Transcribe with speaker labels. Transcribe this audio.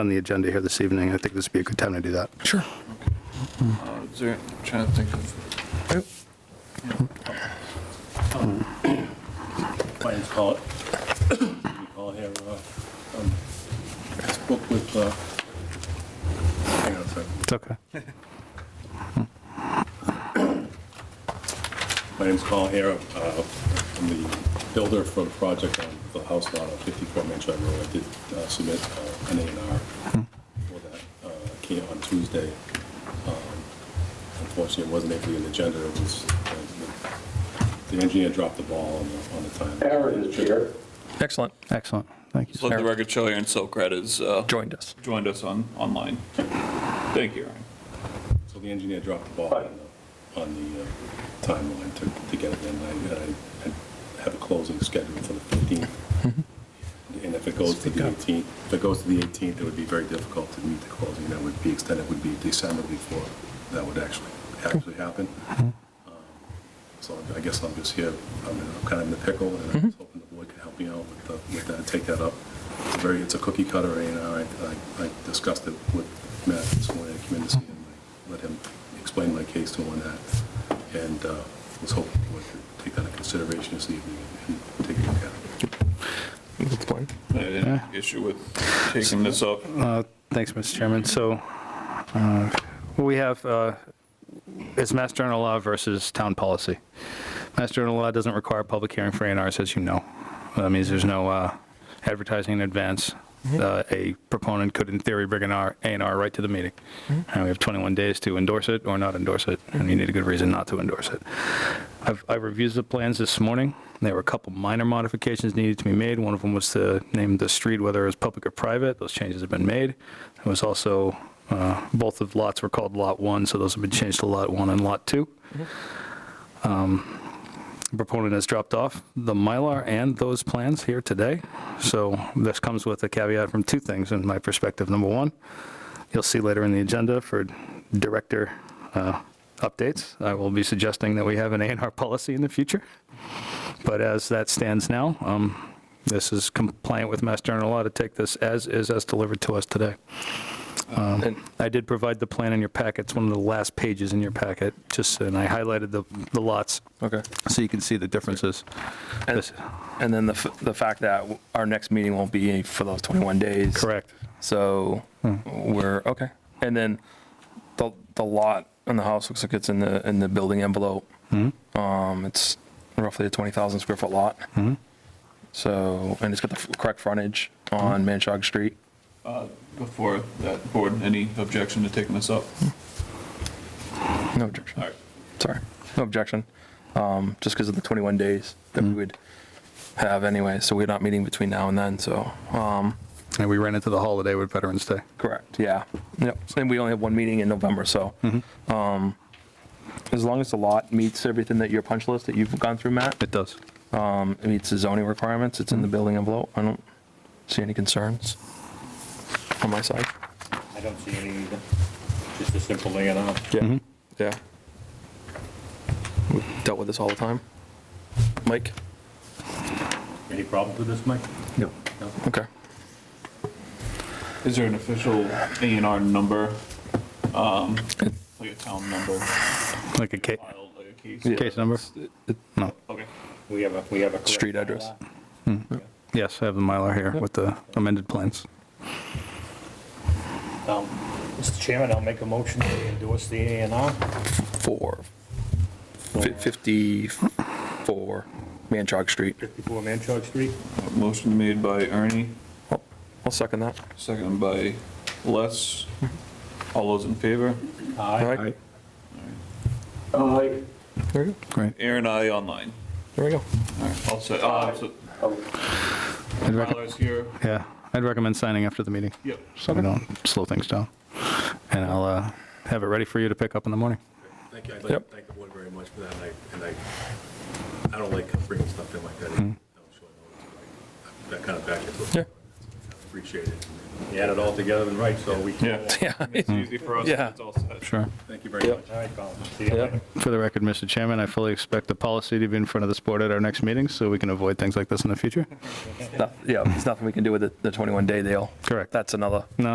Speaker 1: on the agenda here this evening, I think this would be a good time to do that.
Speaker 2: Sure.
Speaker 3: Uh, is there- I'm Trying to think of,
Speaker 4: Why it's called, we call here, uh, um, this book with, uh, hang on a second.
Speaker 1: It's okay.
Speaker 4: My name's Carl Hare. uh, I'm the builder for the project on the house lot on 54 Main Street Road. I did uh, submit uh, an A and R for that. Uh, it Came on Tuesday. Um, Unfortunately, it wasn't able to be on the agenda. It was, uh, the the engineer dropped the ball on the- on the time.
Speaker 5: Aaron is here.
Speaker 2: Excellent.
Speaker 1: Excellent. Thank you.
Speaker 3: let the record show Aaron Silkred has uh,
Speaker 2: Joined us.
Speaker 3: joined us on, online. Thank you, Aaron.
Speaker 4: So the engineer dropped the ball on the, on the uh, timeline to, to get it in. I, I- I have a closing scheduled for the 15th. And if it goes to the 18th, if it goes to the 18th, it would be very difficult to meet the closing. That would be extended, would be December before that would actually, actually happen. Um, So I guess I'm just here, I'm in- I'm kind of in the pickle and I'm just hoping the board can help me out with the- with that, take that up. It's a very, it's a cookie cutter A and R. I- I I discussed it with Matt this morning. I came in to see him. I Let him explain my case to him on that. And uh, was hoping the board could take that into consideration this evening and and take a look at it.
Speaker 2: That's fine.
Speaker 3: I had an issue with taking this up.
Speaker 1: Uh, Thanks, Mr. Chairman. So uh, what we have uh, is Mass General Law versus town policy. Mass General Law doesn't require public hearing for A&Rs, as you know. That means there's no uh, advertising in advance. Uh, A proponent could, in theory, bring an R- A&R right to the meeting. And we have 21 days to endorse it or not endorse it, and you need a good reason not to endorse it. I've, I reviewed the plans this morning. There were a couple minor modifications needed to be made. One of them was to name the street, whether it was public or private. Those changes have been made. There was also, uh, both of lots were called Lot 1, so those have been changed to Lot 1 and Lot 2. Um, Proponent has dropped off the Mylar and those plans here today. So this comes with a caveat from two things in my perspective. Number one, you'll see later in the agenda for director uh, updates. I will be suggesting that we have an A&R policy in the future. But as that stands now, um, this is compliant with Mass General Law to take this as is, as delivered to us today.
Speaker 2: And
Speaker 1: I did provide the plan in your packet. It's one of the last pages in your packet, just, and I highlighted the the lots
Speaker 2: Okay.
Speaker 1: so you can see the differences.
Speaker 2: And,
Speaker 1: This-
Speaker 2: and then the, f- the fact that w- our next meeting won't be for those 21 days.
Speaker 1: Correct.
Speaker 2: So
Speaker 3: Hmm.
Speaker 2: we're, okay. And then the, the lot in the house looks like it's in the, in the building envelope.
Speaker 1: Hmm?
Speaker 2: Um, it's roughly a 20,000 square foot lot.
Speaker 3: Hmm.
Speaker 2: So, and it's got the f- correct frontage
Speaker 3: Hmm.
Speaker 2: on Manchog Street.
Speaker 3: Before that, board, any objection to taking this up?
Speaker 2: No objection.
Speaker 3: All right.
Speaker 2: Sorry, no objection. Um, Just because of the 21 days that
Speaker 3: Hmm.
Speaker 2: we would have anyway, so we're not meeting between now and then, so. um,
Speaker 1: And we ran into the holiday with Veterans Day.
Speaker 2: Correct, yeah. Yep, and we only have one meeting in November, so. um, As long as the lot meets everything that your punch list that you've gone through, Matt,
Speaker 1: It does.
Speaker 2: um, it meets the zoning requirements, it's in the building envelope, I don't see any concerns on my side.
Speaker 6: I don't see any either. Just a simple laying out.
Speaker 2: Yeah. Yeah. We've Dealt with this all the time. Mike?
Speaker 6: Any problems with this, Mike?
Speaker 1: No.
Speaker 2: Okay.
Speaker 3: Is there an official A and R number? um, Like a town number,
Speaker 1: Like a case,
Speaker 3: filed, like a case?
Speaker 2: Yeah.
Speaker 1: case number? No.
Speaker 3: Okay.
Speaker 6: We have a, we have a. correct
Speaker 2: Street address.
Speaker 6: bylaw.
Speaker 1: Yes, I have the Mylar here with the amended plans.
Speaker 6: Um, Mr. Chairman, I'll make a motion to endorse the A and R.
Speaker 2: four, fi- 54 Manchog Street.
Speaker 6: 54 Manchog Street.
Speaker 3: Motion made by Ernie,
Speaker 2: I'll second that.
Speaker 3: second by Les. All those in favor?
Speaker 2: All
Speaker 6: Aye.
Speaker 2: right,
Speaker 5: Aye.
Speaker 2: there we go,
Speaker 1: Great.
Speaker 3: Aaron, I online.
Speaker 2: there we go.
Speaker 3: All right, I'll say, uh, so
Speaker 1: I'd rec-
Speaker 3: Tyler's here.
Speaker 1: Yeah, I'd recommend signing after the meeting,
Speaker 3: Yep.
Speaker 1: so we don't slow things down. And I'll uh, have it ready for you to pick up in the morning.
Speaker 4: Thank you. I'd like to
Speaker 2: Yep.
Speaker 4: thank the board very much for that, and I- and I, I don't like bringing stuff in like that. on short notice, but I- That kind of back and forth.
Speaker 2: Yeah.
Speaker 4: Appreciate it.
Speaker 6: You add it all together and right, so we.
Speaker 3: Yeah.
Speaker 2: Yeah.
Speaker 3: It's easy for us.
Speaker 2: Yeah.
Speaker 3: It's all set.
Speaker 1: Sure.
Speaker 4: Thank you very much.
Speaker 6: All right, Colin. See you later.
Speaker 1: For the record, Mr. Chairman, I fully expect the policy to be in front of this board at our next meeting, so we can avoid things like this in the future.
Speaker 2: No- Yeah, there's nothing we can do with the- the 21-day deal.
Speaker 1: Correct.
Speaker 2: That's another